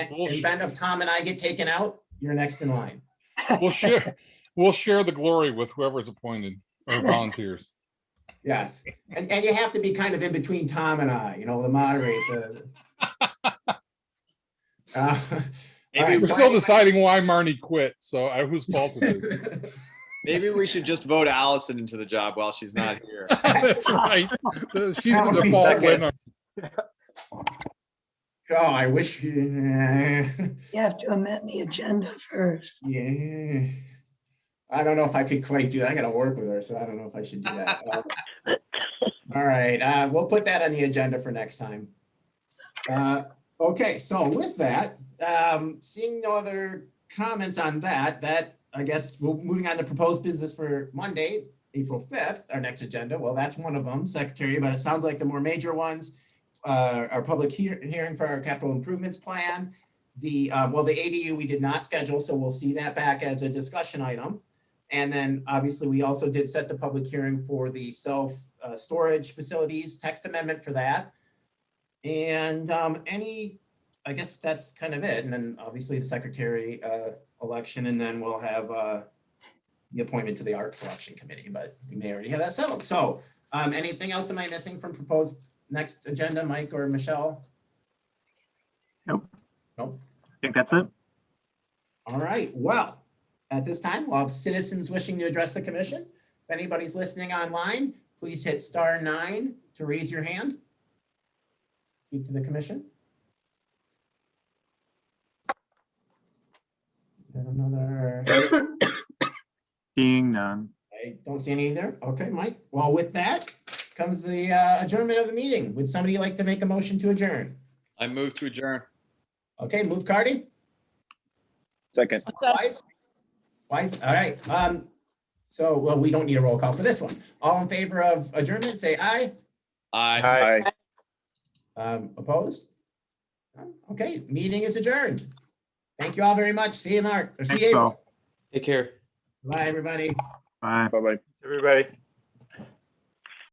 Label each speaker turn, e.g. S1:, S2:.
S1: We'll sh-
S2: event of Tom and I get taken out, you're next in line.
S1: We'll share, we'll share the glory with whoever's appointed or volunteers.
S2: Yes. And, and you have to be kind of in between Tom and I, you know, the moderator. the- Uh, all
S3: Maybe
S2: right,
S1: We're
S2: so
S1: still
S2: anyway-
S1: deciding why Marnie quit, so I, whose fault is it?
S3: Maybe we should just vote Allison into the job while she's not here.
S1: That's right.
S2: That
S1: She's the
S2: would be
S1: default
S3: second.
S1: winner.
S2: Oh, I wish. Yeah.
S4: You have to amend the agenda first.
S2: Yeah. I don't know if I could quite do that. I gotta work with her, so I don't know if I should do that. Uh, All right, uh, we'll put that on the agenda for next time. Uh, okay, so with that, um, seeing no other comments on that, that, I guess, we're moving on to proposed business for Monday, April fifth, our next agenda. Well, that's one of them, Secretary, but it sounds like the more major ones, uh, our public hear- hearing for our capital improvements plan, the, uh, well, the ADU we did not schedule, so we'll see that back as a discussion item. And then obviously, we also did set the public hearing for the self-storage facilities, text amendment for that. And um, any, I guess that's kind of it. And then obviously the secretary uh, election, and then we'll have uh, the appointment to the art selection committee, but we may already have that settled. So um, anything else am I missing from proposed next agenda, Mike or Michelle?
S5: think that's it.
S2: All right, well, at this time, we'll have citizens wishing to address the commission. If anybody's listening online, please hit star nine to raise your hand. Speak to the commission. And another,
S5: Seeing none.
S2: I don't see any there. Okay, Mike. Well, with that comes the uh, adjournment of the meeting. Would somebody like to make a motion to adjourn?
S3: I move to adjourn.
S2: Okay, move Cardy.
S6: Second.
S2: Wise? Wise, all right, um, so, well, we don't need a roll call for this one. All in favor of adjournment, say aye.
S3: Aye.
S6: Aye.
S2: Um, opposed? None? Okay, meeting is adjourned. Thank you all very much. See you, Mark, or see
S5: Thanks,
S2: you.
S5: Bill.
S2: April. Bye, everybody.
S5: Bye.
S6: Bye-bye.
S7: Everybody.